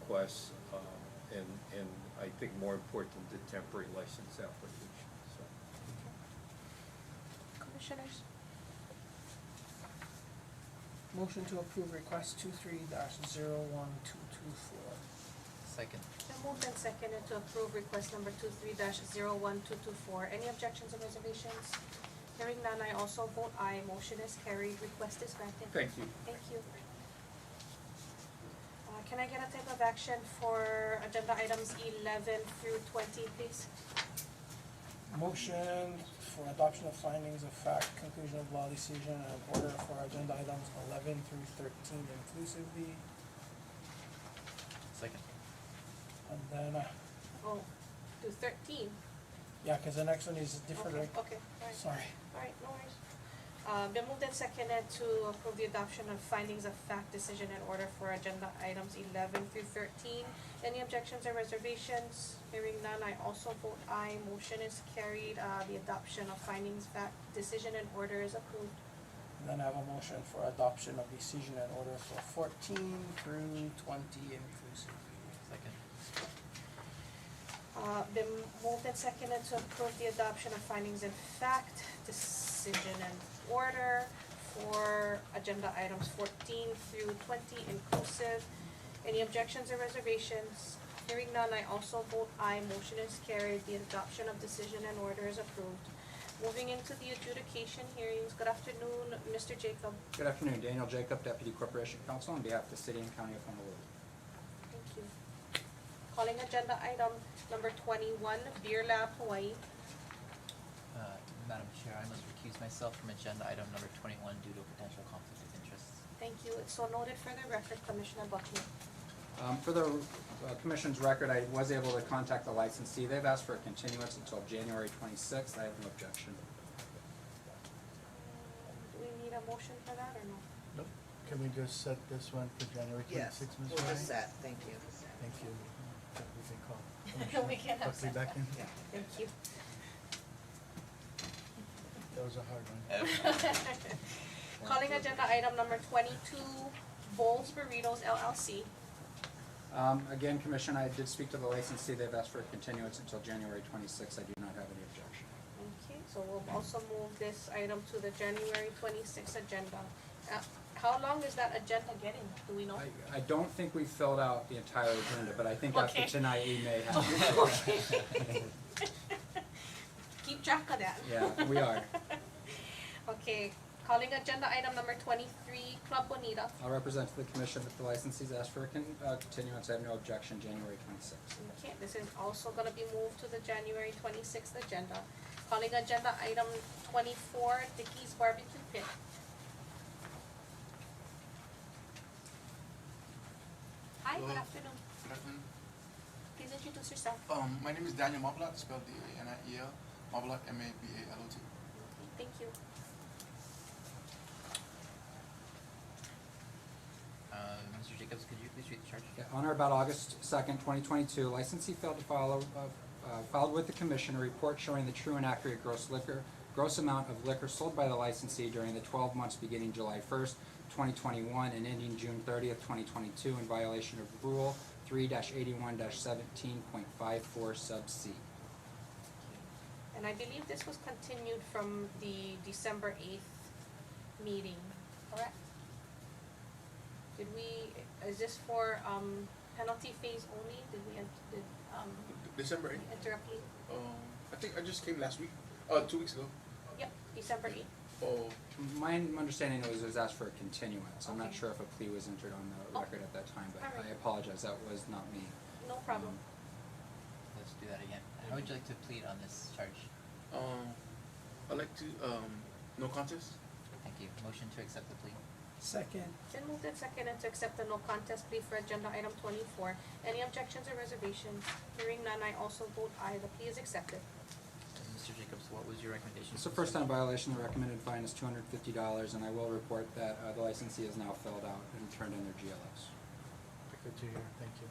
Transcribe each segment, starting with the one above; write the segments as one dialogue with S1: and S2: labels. S1: requests, um, and, and I think more important, the temporary license application, so.
S2: Commissioners?
S3: Motion to approve request two three dash zero one two two four.
S4: Second.
S2: Then moved and seconded to approve request number two-three dash zero-one-two-two-four. Any objections or reservations? Hearing none, I also vote aye. Motion is carried. Request is granted.
S1: Thank you.
S2: Thank you. Uh, can I get a type of action for agenda items eleven through twenty, please?
S3: Motion for adoption of findings of fact, conclusion of law decision, and order for agenda items eleven through thirteen inclusively.
S4: Second.
S3: And then, uh,
S2: Oh, to thirteen?
S3: yeah, cause the next one is different,
S2: Okay,
S3: right?
S2: Okay, all right.
S3: Sorry.
S2: Alright, no worries. Uh, been moved and seconded to approve the adoption of findings of fact decision and order for agenda items eleven through thirteen. Any objections or reservations? Hearing none, I also vote aye. Motion is carried. Uh, the adoption of findings fact decision and order is approved.
S3: And then I have a motion for adoption of decision and order for fourteen through twenty inclusively.
S4: Second.
S2: Uh, been moved and seconded to approve the adoption of findings in fact, decision and order for agenda items fourteen through twenty inclusive. Any objections or reservations? Hearing none, I also vote aye, motion is carried, the adoption of decision and order is approved. Moving into the adjudication hearings, good afternoon, Mr. Jacob,
S5: Good afternoon, Daniel Jacob, Deputy Corporation Counsel, on behalf of the City and County of Honolulu.
S2: thank you. Calling agenda item number twenty-one, Beer Lab Hawaii.
S4: Uh, Madam Chair, I must recuse myself from agenda item number twenty-one due to potential conflict of interest.
S2: Thank you. It's so noted for the record, Commissioner Buckman.
S5: Um, For the uh, Commission's record, I was able to contact the licensee. They've asked for a continuance until January 26th. I have no objection.
S2: Do we need a motion for that or no?
S6: Nope. Can we just set this one for January
S7: Yes,
S6: twenty-sixth, Ms.
S7: we'll
S6: Ryan?
S7: just set, thank you.
S6: Thank you. Yeah, We can call.
S2: We can
S6: Buckley
S2: have set.
S6: back in.
S7: Yeah.
S2: Thank you.
S6: That was a hard one.
S2: Calling agenda item number twenty-two, Bowls Burritos LLC.
S5: Um, Again, Commission, I did speak to the licensee. They've asked for a continuance until January 26th. I do not have any objection.
S2: Okay, so we'll also move this item to the January twenty-sixth agenda. Uh, How long is that agenda getting? Do we know?
S5: I- I don't think we filled out the entire agenda, but I think after
S2: Okay.
S5: tonight, we may have.
S2: Okay. Keep track of that.
S5: Yeah, we are.
S2: Okay, calling agenda item number twenty-three, Club Bonita.
S5: I'll represent to the Commission that the licensee's asked for a con- uh, continuance. I have no objection, January 26th.
S2: Okay, this is also gonna be moved to the January twenty-sixth agenda. Calling agenda item twenty-four, Dickie's Barbecue Pit. Hi, good
S8: Hello.
S2: afternoon.
S8: Good afternoon.
S2: Please introduce yourself.
S8: Um, my name is Daniel Mablat, spelled D-A-N-I-E-L, Mablat, M-A-B-A-L-O-T.
S2: Thank you.
S4: Uh, Mr. Jacobs, could you please read the charge?
S5: Yeah, On or about August second, twenty twenty-two, licensee failed to follow, uh, uh, filed with the commission a report showing the true and accurate gross liquor, gross amount of liquor sold by the licensee during the twelve months beginning July first, twenty twenty-one and ending June thirtieth, twenty twenty-two, in violation of Rule three eighty-one seventeen point five four sub C.
S2: And I believe this was continued from the December eighth meeting, correct? Did we, is this for, um, penalty phase only? Did we, en- did, um,
S8: December eighth,
S2: interrupt you?
S8: um, I think I just came last week, uh, two weeks ago.
S2: Yep, December eighth.
S8: Oh,
S5: My understanding was it was asked for a continuance. I'm not
S2: Okay.
S5: sure if a plea was entered on the
S2: Oh.
S5: record at that time, but
S2: All right.
S5: I apologize, that was not me.
S2: No problem.
S5: Um,
S4: Let's do that again. How would you like to plead on this charge?
S8: um, I'd like to, um, no contest?
S4: Thank you. Motion to accept the plea.
S3: Second,
S2: Then moved and seconded to accept the no contest plea for agenda item twenty-four. Any objections or reservations? Hearing none, I also vote aye. The plea is accepted.
S4: And Mr. Jacobs, what was your recommendation?
S5: It's a first time violation, the recommended fine is two hundred fifty dollars, and I will report that, uh, the licensee has now filled out and turned in their GLS.
S6: Good to hear, thank you.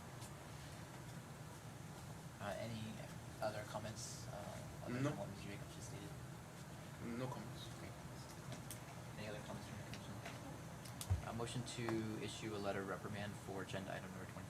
S4: Uh, any other comments, uh, other
S8: No.
S4: than what Mr. Jacobs just stated?
S8: No comments.
S4: Great. Any other comments from the commission? Uh, motion to issue a letter reprimand for agenda item number twenty-four.